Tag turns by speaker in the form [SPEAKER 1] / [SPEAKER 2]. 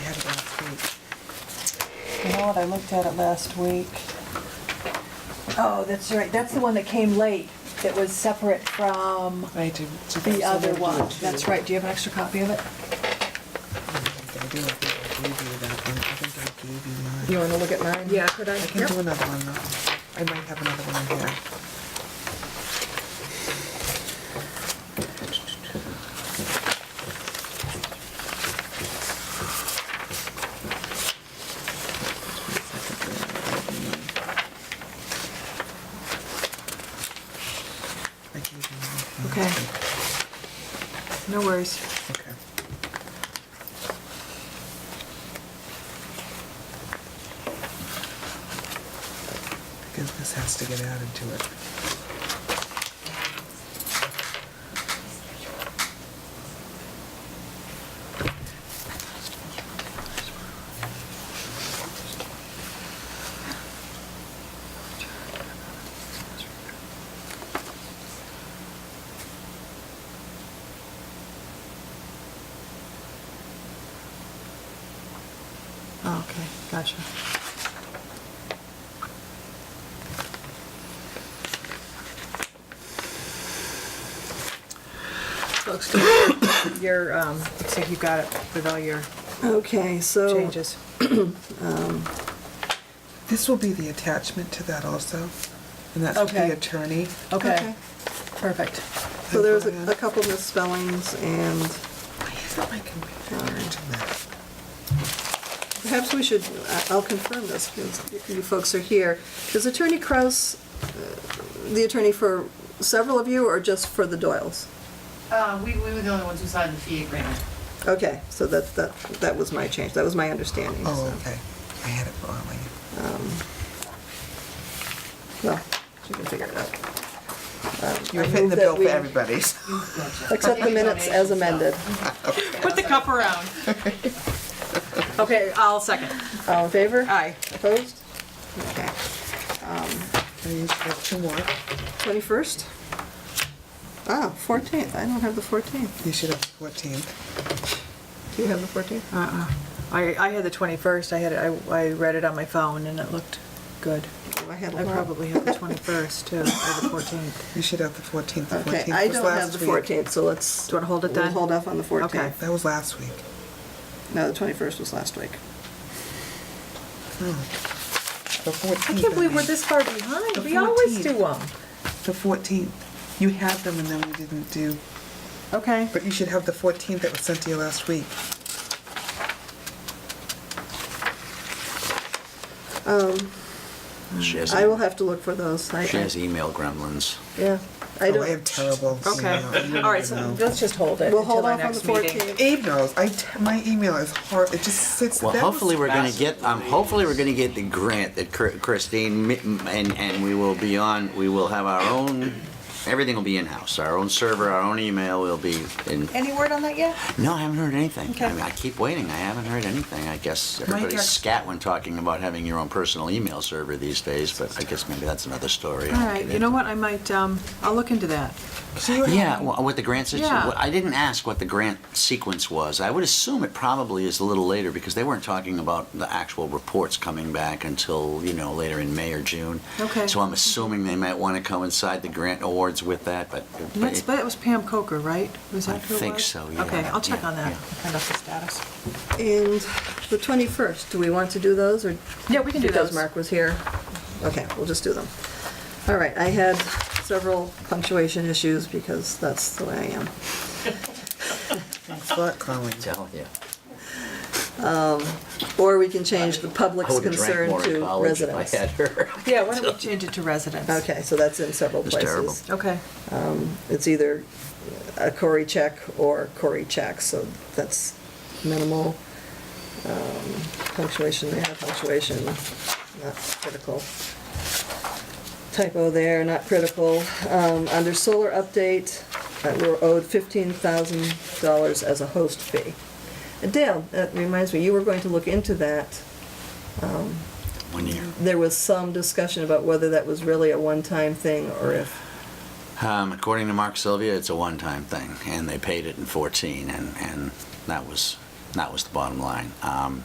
[SPEAKER 1] out, I looked at it last week. Oh, that's right, that's the one that came late, that was separate from
[SPEAKER 2] I do. so
[SPEAKER 1] the
[SPEAKER 2] that's
[SPEAKER 1] other
[SPEAKER 2] I do.
[SPEAKER 1] one. That's right, do you have an extra copy of it?
[SPEAKER 2] I think I do. I think I gave you that one. I think I gave you mine.
[SPEAKER 3] You wanna look at mine?
[SPEAKER 2] Yeah, could I? I
[SPEAKER 3] Yeah.
[SPEAKER 2] can do another one though. I might have another one in here. I gave you mine.
[SPEAKER 1] Okay. No worries.
[SPEAKER 2] Okay. Because this has to get added to it.
[SPEAKER 3] Oh, okay, gotcha. Looks good. Your, um, looks like you've got it with all your
[SPEAKER 4] Okay,
[SPEAKER 1] Oh.
[SPEAKER 4] so.
[SPEAKER 3] changes.
[SPEAKER 2] This will be the attachment to that also, and that's with
[SPEAKER 3] Okay.
[SPEAKER 2] the attorney.
[SPEAKER 3] Okay,
[SPEAKER 4] Okay.
[SPEAKER 3] perfect.
[SPEAKER 4] So there's a a couple misspellings, and
[SPEAKER 2] Why isn't my computer into that?
[SPEAKER 4] perhaps we should, I- I'll confirm this, because you folks are here. Is Attorney Kraus uh, the attorney for several of you, or just for the Doyles?
[SPEAKER 5] Uh, we, we were the only ones who signed the fee agreement.
[SPEAKER 4] Okay, so that, that, that was my change, that was my understanding.
[SPEAKER 2] Oh,
[SPEAKER 4] so,
[SPEAKER 2] okay. I had it wrong. I-
[SPEAKER 4] Well, you can figure it out. Um,
[SPEAKER 2] You were
[SPEAKER 4] I
[SPEAKER 2] paying
[SPEAKER 4] move
[SPEAKER 2] the
[SPEAKER 4] that
[SPEAKER 2] bill
[SPEAKER 4] we
[SPEAKER 2] for everybody's.
[SPEAKER 4] Accept the minutes as amended.
[SPEAKER 3] Put the cup around. Okay, I'll second.
[SPEAKER 4] All in favor?
[SPEAKER 3] Aye.
[SPEAKER 4] Opposed? Okay.
[SPEAKER 2] I used to have two more.
[SPEAKER 4] 21st? Ah, 14th, I don't have the 14th.
[SPEAKER 2] You should have 14.
[SPEAKER 4] Do you have the 14th?
[SPEAKER 3] Uh-uh. I, I had the 21st, I had, it- I, I read it on my phone and it looked good.
[SPEAKER 4] Oh, I had a
[SPEAKER 3] I
[SPEAKER 4] lot.
[SPEAKER 3] probably have the 21st too, or the 14th.
[SPEAKER 2] You should have the 14th. The
[SPEAKER 4] Okay,
[SPEAKER 2] 14th
[SPEAKER 4] I
[SPEAKER 2] was
[SPEAKER 4] don't have
[SPEAKER 2] last
[SPEAKER 4] the
[SPEAKER 2] week.
[SPEAKER 4] 14th, so let's.
[SPEAKER 3] Do you wanna hold it
[SPEAKER 4] we'll
[SPEAKER 3] then?
[SPEAKER 4] hold off on the 14th.
[SPEAKER 3] Okay.
[SPEAKER 2] That was last week.
[SPEAKER 4] No, the 21st was last week.
[SPEAKER 2] The 14th.
[SPEAKER 3] I can't believe we're
[SPEAKER 2] mean.
[SPEAKER 3] this far behind.
[SPEAKER 2] The
[SPEAKER 3] We always
[SPEAKER 2] 14th.
[SPEAKER 3] do them.
[SPEAKER 2] The 14th. You had them and then we didn't do,
[SPEAKER 3] Okay.
[SPEAKER 2] but you should have the 14th that was sent to you last week.
[SPEAKER 6] She has,
[SPEAKER 4] Um, I will have to look for those. I-
[SPEAKER 6] she has email gremlins.
[SPEAKER 4] Yeah, I
[SPEAKER 2] Oh, I am
[SPEAKER 4] don't,
[SPEAKER 2] terrible.
[SPEAKER 3] Okay. All right, so let's just hold it
[SPEAKER 4] we'll hold
[SPEAKER 3] until our
[SPEAKER 4] off on the
[SPEAKER 3] next meeting.
[SPEAKER 4] 14th.
[SPEAKER 2] Emails, I, te- my email is hard, it just sits.
[SPEAKER 6] Well,
[SPEAKER 2] that was
[SPEAKER 6] hopefully we're going to
[SPEAKER 2] fast.
[SPEAKER 6] get. Um, hopefully we're going to get the grant that Chr- Christine mi- and and we will be on. We will have our own. Everything will be in house. Our own server, our own email will be in.
[SPEAKER 3] Any word on that yet?
[SPEAKER 6] No, I haven't heard anything.
[SPEAKER 3] Okay.
[SPEAKER 6] I, mean, I keep waiting. I haven't heard anything. I guess everybody's
[SPEAKER 2] act-
[SPEAKER 6] scat when talking about having your own personal email server these days, but I guess maybe that's another story. I
[SPEAKER 3] All
[SPEAKER 6] won't
[SPEAKER 3] right,
[SPEAKER 6] get
[SPEAKER 3] you know
[SPEAKER 6] into.
[SPEAKER 3] what, I might, um, I'll look into that.
[SPEAKER 6] Yeah, wh- what the grant
[SPEAKER 3] Yeah.
[SPEAKER 6] situation, I didn't ask what the grant sequence was. I would assume it probably is a little later because they weren't talking about the actual reports coming back until, you know, later in May or June.
[SPEAKER 3] Okay.
[SPEAKER 6] So I'm assuming they might want to coincide the grant awards with that, but. but
[SPEAKER 3] And that's,
[SPEAKER 6] it-
[SPEAKER 3] that was Pam Coker, right? Was
[SPEAKER 6] I
[SPEAKER 3] that who it
[SPEAKER 6] think
[SPEAKER 3] was?
[SPEAKER 6] so, yeah,
[SPEAKER 3] Okay, I'll check
[SPEAKER 6] yeah,
[SPEAKER 3] on that,
[SPEAKER 6] yeah.
[SPEAKER 3] find out the status.
[SPEAKER 4] And the 21st, do we want to do those, or?
[SPEAKER 3] Yeah, we can do
[SPEAKER 4] Because
[SPEAKER 3] those.
[SPEAKER 4] Mark was here. Okay, we'll just do them. All right, I had several punctuation issues because that's the way I am.
[SPEAKER 2] Thought calling.
[SPEAKER 6] Tell ya.
[SPEAKER 4] Or we can change the
[SPEAKER 6] I
[SPEAKER 4] public's
[SPEAKER 6] would have drank
[SPEAKER 4] concern
[SPEAKER 6] more in
[SPEAKER 4] to
[SPEAKER 6] college if I
[SPEAKER 4] residents.
[SPEAKER 6] had her.
[SPEAKER 3] Yeah, why don't we change it to residents?
[SPEAKER 4] Okay, so that's in several
[SPEAKER 6] It's
[SPEAKER 4] places.
[SPEAKER 6] terrible.
[SPEAKER 3] Okay,
[SPEAKER 4] It's either a Cory check or Cory check, so that's minimal. Um, Punctuation there, punctuation, not critical. Typo there, not critical. Um, Under solar update, uh, we're owed $15,000 as a host fee. And Dale, that reminds me, you were going to look into that.
[SPEAKER 6] One year.
[SPEAKER 4] There was some discussion about whether that was really a one-time thing or if
[SPEAKER 6] Um, according to Mark Sylvia, it's a one-time thing, and they paid it in 14, and, and that was that was the bottom line. Um,